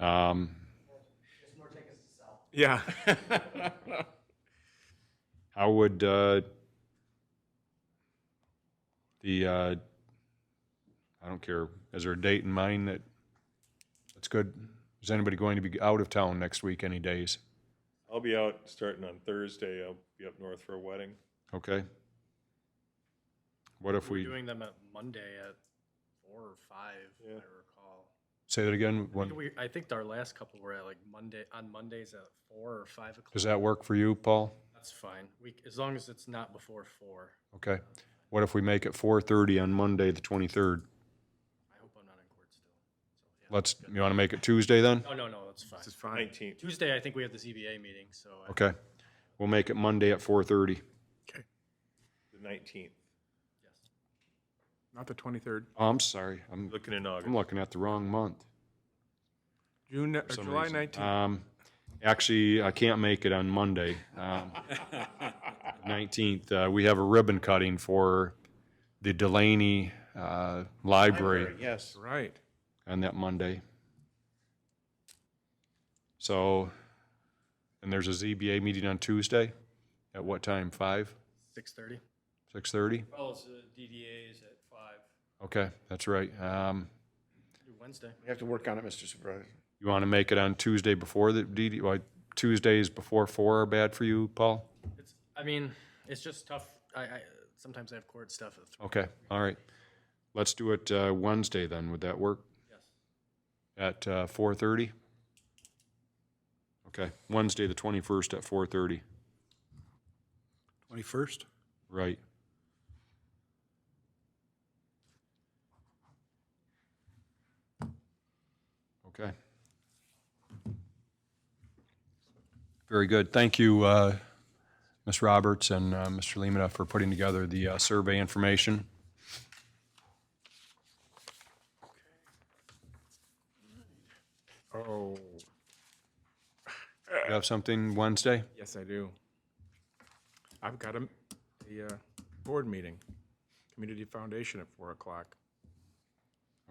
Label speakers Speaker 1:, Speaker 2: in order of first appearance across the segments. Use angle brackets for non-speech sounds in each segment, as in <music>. Speaker 1: Um,
Speaker 2: <laughs> Yeah.
Speaker 1: How would uh, the, uh, I don't care, is there a date in mind that, that's good? Is anybody going to be out of town next week, any days?
Speaker 3: I'll be out starting on Thursday. I'll be up north for a wedding.
Speaker 1: Okay? What if
Speaker 4: We're
Speaker 1: we,
Speaker 4: doing them at Monday at four or five, if I
Speaker 3: Yeah.
Speaker 4: recall.
Speaker 1: say that again?
Speaker 4: I think
Speaker 1: When-
Speaker 4: We, I think our last couple were at like Monday, on Mondays at four or five
Speaker 1: Does
Speaker 4: o'clock.
Speaker 1: that work for you, Paul?
Speaker 4: That's fine. We, as long as it's not before four.
Speaker 1: Okay. What if we make it 4:30 on Monday, the 23rd?
Speaker 4: I hope I'm not in court still. So, yeah.
Speaker 1: Let's, you want to make it Tuesday then?
Speaker 4: No, no, no, that's fine.
Speaker 2: This is fine.
Speaker 3: Nineteenth.
Speaker 4: Tuesday, I think we have the ZBA meeting, so. I-
Speaker 1: Okay. We'll make it Monday at 4:30.
Speaker 3: The nineteenth.
Speaker 4: yes.
Speaker 2: Not the 23rd.
Speaker 1: Oh, I'm sorry. I'm,
Speaker 3: Looking in
Speaker 1: I'm
Speaker 3: August.
Speaker 1: looking at the wrong month.
Speaker 2: June, or
Speaker 1: for some
Speaker 2: July
Speaker 1: reason.
Speaker 2: 19th.
Speaker 1: Um, actually, I can't make it on Monday. Um, 19th, uh, we have a ribbon cutting for the Delaney uh, Library
Speaker 3: Yes.
Speaker 2: Right.
Speaker 1: on that Monday. So, and there's a ZBA meeting on Tuesday. At what time? 5?
Speaker 4: Six thirty?
Speaker 1: 6:30?
Speaker 5: Well, it's the DDA is at five.
Speaker 1: Okay, that's right. Um,
Speaker 4: Do Wednesday.
Speaker 6: You have to work on it, Mr. Surprise.
Speaker 1: You want to make it on Tuesday before the DD, why Tuesdays before 4 are bad for you, Paul?
Speaker 4: It's, I mean, it's just tough. I, I, sometimes I have court stuff at three.
Speaker 1: Okay, all right. Let's do it uh, Wednesday then, would that work?
Speaker 4: Yes.
Speaker 1: At uh, 4:30? Okay, Wednesday, the 21st at 4:30,
Speaker 7: 21st?
Speaker 1: right. Okay. Very good, thank you, uh, Ms. Roberts and uh, Mr. Lemata for putting together the uh, survey information.
Speaker 2: Oh,
Speaker 1: You have something Wednesday?
Speaker 2: yes, I do. I've got a, a uh, board meeting, Community Foundation at 4 o'clock.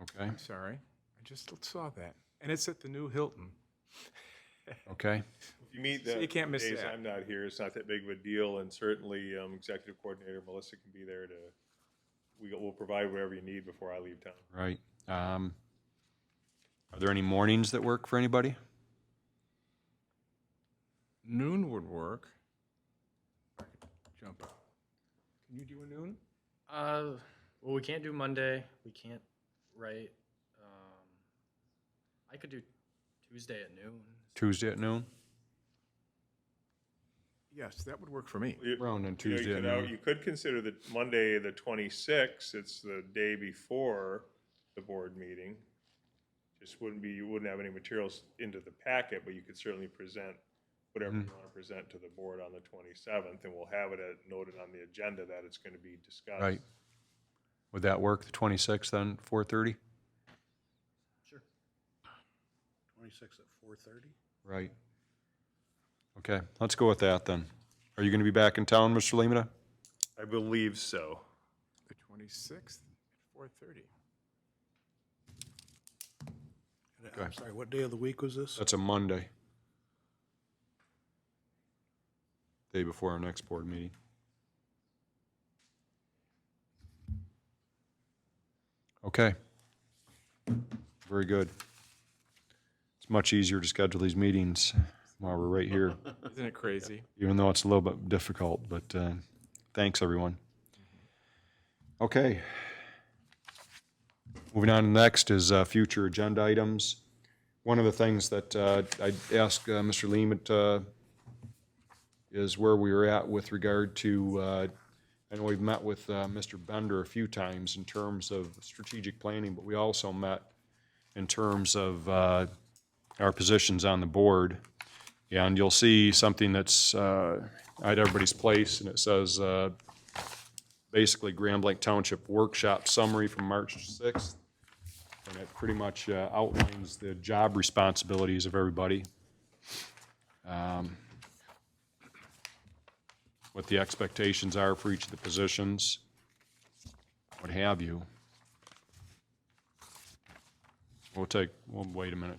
Speaker 1: Okay,
Speaker 2: I'm sorry. I just saw that. And it's at the new Hilton.
Speaker 1: okay.
Speaker 3: If you meet
Speaker 2: So
Speaker 3: that
Speaker 2: you can't miss
Speaker 3: days
Speaker 2: that.
Speaker 3: I'm not here, it's not that big of a deal, and certainly, um, Executive Coordinator Melissa can be there to, we, will provide whatever you need before I leave town.
Speaker 1: Right. Um, Are there any mornings that work for anybody?
Speaker 2: Noon would work. Jump. Can you do a noon?
Speaker 4: Uh, well, we can't do Monday. We can't write. Um, I could do Tuesday at noon.
Speaker 1: Tuesday at noon?
Speaker 2: Yes, that would work for me.
Speaker 3: You-
Speaker 1: Round on
Speaker 3: you know, you
Speaker 1: Tuesday at
Speaker 3: could al-
Speaker 1: noon.
Speaker 3: You could consider the Monday, the twenty-sixth, it's the day before the board meeting. Just wouldn't be, you wouldn't have any materials into the packet, but you could certainly present whatever you
Speaker 1: Mm-hmm.
Speaker 3: want to present to the board on the twenty-seventh, and we'll have it at- noted on the agenda that it's going to be discussed.
Speaker 1: Right. Would that work, the 26th then, 4:30?
Speaker 7: 26 at 4:30?
Speaker 1: Right. Okay, let's go with that then. Are you going to be back in town, Mr. Lemata?
Speaker 3: I believe so.
Speaker 2: The 26th at 4:30.
Speaker 7: I'm sorry, what day of the week was this?
Speaker 1: That's a Monday. Day before our next board meeting. Okay. Very good. It's much easier to schedule these meetings while we're right here,
Speaker 2: Isn't it crazy?
Speaker 1: even though it's a little bit difficult, but uh, thanks, everyone. Okay. Moving on, next is uh, future agenda items. One of the things that uh, I asked uh, Mr. Leamet uh, is where we are at with regard to, uh, I know we've met with uh, Mr. Bender a few times in terms of strategic planning, but we also met in terms of uh, our positions on the board. And you'll see something that's uh, at everybody's place, and it says uh, basically Grand Blanc Township Workshop Summary from March 6th. And it pretty much uh, outlines the job responsibilities of everybody. um, What the expectations are for each of the positions, what have you. We'll take, we'll wait a minute